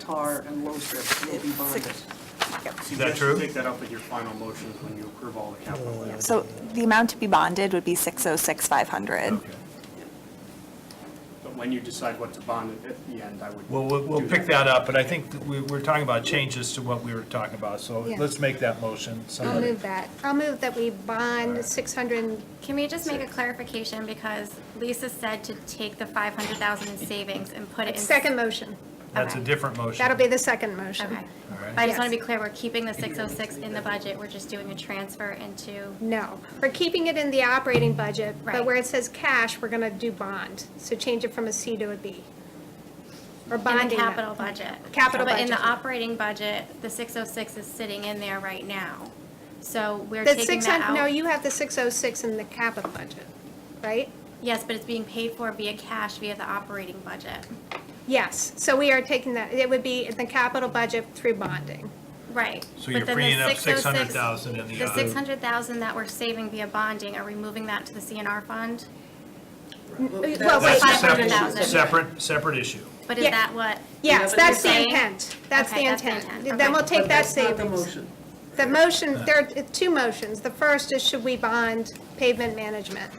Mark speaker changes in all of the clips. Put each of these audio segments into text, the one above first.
Speaker 1: tar and low strip will be bonded.
Speaker 2: Is
Speaker 3: that true?
Speaker 2: Take that up with your final motions when you approve all the capital plans.
Speaker 4: So the amount to be bonded would be 606,500.
Speaker 2: But when you decide what to bond at the end, I would.
Speaker 3: Well, we'll, we'll
Speaker 2: do
Speaker 3: pick that up, but I think that we, we're talking about changes to what we were talking about, so
Speaker 5: Yeah.
Speaker 3: let's make that motion.
Speaker 5: I'll
Speaker 3: Somebody-
Speaker 5: move that. I'll move that we bond 600,
Speaker 6: Can we just make a clarification, because Lisa said to take the 500,000 in savings and put it in.
Speaker 5: second motion.
Speaker 3: That's a different motion.
Speaker 5: That'll be the second motion.
Speaker 6: Okay.
Speaker 3: All right.
Speaker 6: But I just want
Speaker 5: Yes.
Speaker 6: to be clear, we're keeping the 606 in the budget, we're just doing a transfer into,
Speaker 5: No, we're keeping it in the operating budget, but
Speaker 6: Right.
Speaker 5: where it says cash, we're going to do bond. So change it from a C to a B. Or
Speaker 6: in the
Speaker 5: bonding. that.
Speaker 6: capital budget.
Speaker 5: Capital
Speaker 6: But in the
Speaker 5: budget.
Speaker 6: operating budget, the 606 is sitting in there right now. So we're
Speaker 5: The
Speaker 6: taking
Speaker 5: 600,
Speaker 6: that
Speaker 5: no,
Speaker 6: out.
Speaker 5: you have the 606 in the capital budget, right?
Speaker 6: Yes, but it's being paid for via cash, via the operating budget.
Speaker 5: Yes, so we are taking that, it would be in the capital budget through bonding.
Speaker 6: Right.
Speaker 3: So
Speaker 6: But
Speaker 3: you're
Speaker 6: then the
Speaker 3: freeing up
Speaker 6: 606
Speaker 3: 600,000 in the
Speaker 6: The
Speaker 3: other-
Speaker 6: 600,000 that we're saving via bonding, are we moving that to the CNR fund?
Speaker 5: Well, wait,
Speaker 3: That's a separate-
Speaker 6: 500,000.
Speaker 3: Separate, separate issue.
Speaker 6: But is
Speaker 5: Yeah.
Speaker 6: that what?
Speaker 5: Yes,
Speaker 6: what you're
Speaker 5: that's the
Speaker 6: saying?
Speaker 5: intent. That's the
Speaker 6: Okay, that's the
Speaker 5: intent.
Speaker 6: intent.
Speaker 5: Then we'll
Speaker 6: Okay.
Speaker 5: take
Speaker 1: But
Speaker 5: that
Speaker 1: that's not the
Speaker 5: savings.
Speaker 1: motion.
Speaker 5: The motion, there are two motions. The first is should we bond pavement management?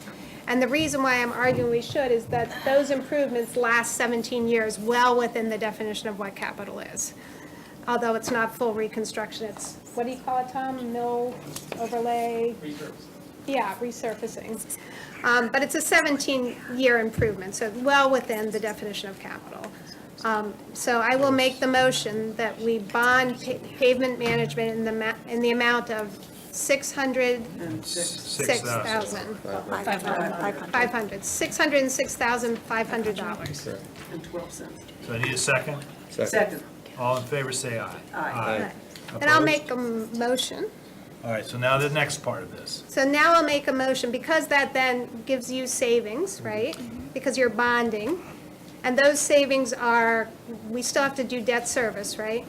Speaker 5: And the reason why I'm arguing we should is that those improvements last 17 years, well within the definition of what capital is. Although it's not full reconstruction, it's, what do you call it, Tom? Mill overlay? Yeah, resurfacing. Um, But it's a 17-year improvement, so well within the definition of capital. Um, So I will make the motion that we bond pa- pavement management in the, ma- in the amount of
Speaker 1: And six-
Speaker 5: 606,500,
Speaker 4: 500.
Speaker 5: $606,500.
Speaker 1: and 12 cents.
Speaker 3: So I need a second.
Speaker 1: Second.
Speaker 3: All in favor, say aye.
Speaker 1: Aye.
Speaker 5: And I'll
Speaker 3: Opposed?
Speaker 5: make a m- motion.
Speaker 3: All right, so now the next part of this.
Speaker 5: So now I'll make a motion, because that then gives you savings, right? Because you're bonding, and those savings are, we still have to do debt service, right?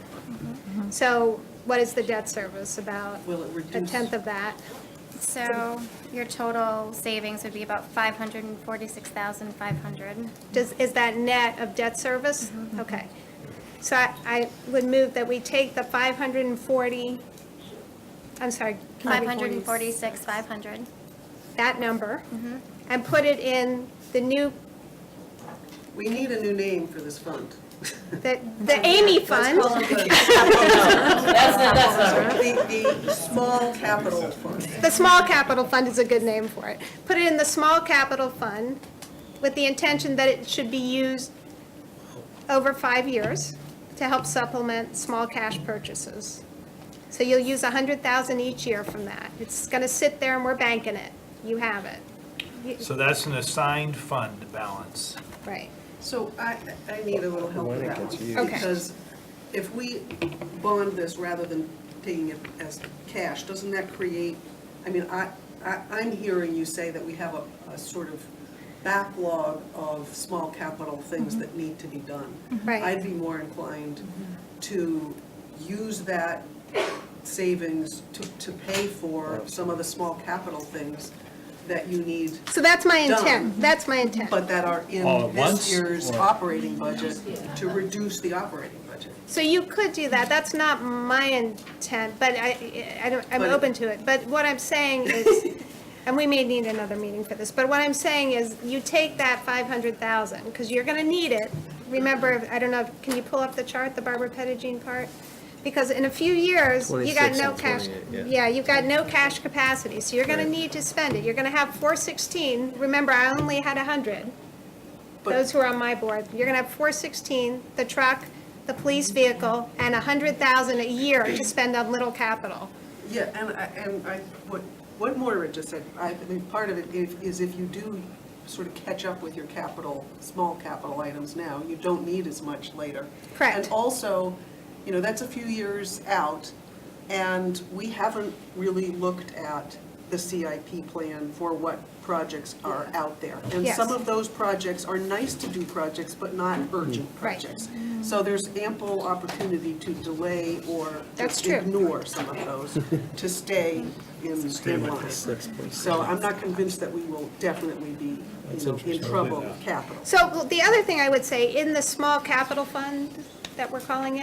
Speaker 5: So what is the debt service, about
Speaker 1: Will it
Speaker 5: a
Speaker 1: reduce?
Speaker 5: tenth of that?
Speaker 6: So your total savings would be about 546,500.
Speaker 5: Does, is that net of debt service? Okay. So I, I would move that we take the 540, I'm sorry. can I be
Speaker 6: 546,500.
Speaker 5: That number, and put it in the new,
Speaker 1: We need a new name for this fund.
Speaker 5: the, the Amy fund.
Speaker 1: The, the small capital fund.
Speaker 5: The small capital fund is a good name for it. Put it in the small capital fund with the intention that it should be used over five years to help supplement small cash purchases. So you'll use a hundred thousand each year from that. It's gonna sit there and we're banking it. You have it,
Speaker 3: So that's an assigned fund balance.
Speaker 5: right?
Speaker 1: So I, I need a little help with that one.
Speaker 5: Okay.
Speaker 1: Because if we bond this rather than taking it as cash, doesn't that create, I mean, I, I, I'm hearing you say that we have a, a sort of backlog of small capital things that need to be done.
Speaker 5: Right.
Speaker 1: I'd be more inclined to use that savings to, to pay for some of the small capital things that you need,
Speaker 5: So that's my
Speaker 1: Done.
Speaker 5: intent. That's my intent.
Speaker 1: but that are in
Speaker 3: All at
Speaker 1: this
Speaker 3: once,
Speaker 1: year's
Speaker 3: or-
Speaker 1: operating budget to reduce the operating budget.
Speaker 5: So you could do that, that's not my intent, but I, I don't, I'm
Speaker 1: But-
Speaker 5: open to it. But what I'm saying is, and we may need another meeting for this, but what I'm saying is, you take that five hundred thousand, because you're gonna need it. Remember, I don't know, can you pull up the chart, the Barbara Pettigene part? Because in a few years, you got
Speaker 7: 26
Speaker 5: no
Speaker 7: and
Speaker 5: cash.
Speaker 7: 28, yeah.
Speaker 5: Yeah, you've got no cash capacity, so you're gonna need to spend it. You're gonna have four sixteen, remember, I only had a hundred
Speaker 1: But-
Speaker 5: those who are on my board, you're gonna have four sixteen, the truck, the police vehicle, and a hundred thousand a year to spend on little capital.
Speaker 1: Yeah, and I, and I, what, what Moira just said, I mean, part of it if- is if you do sort of catch up with your capital, small capital items now, you don't need as much later.
Speaker 5: Correct.
Speaker 1: And also, you know, that's a few years out, and we haven't really looked at the CIP plan for what projects are out there. And
Speaker 5: Yes.
Speaker 1: some of those projects are nice to do projects, but not urgent
Speaker 5: Right. Mm-hmm.
Speaker 1: projects. So there's ample opportunity to delay or
Speaker 5: That's
Speaker 1: just
Speaker 5: true.
Speaker 1: ignore some of those to stay in in line. So I'm not convinced that we will definitely be, you know, in trouble with capital.
Speaker 5: So the other thing I would say, in the small capital fund that we're calling it.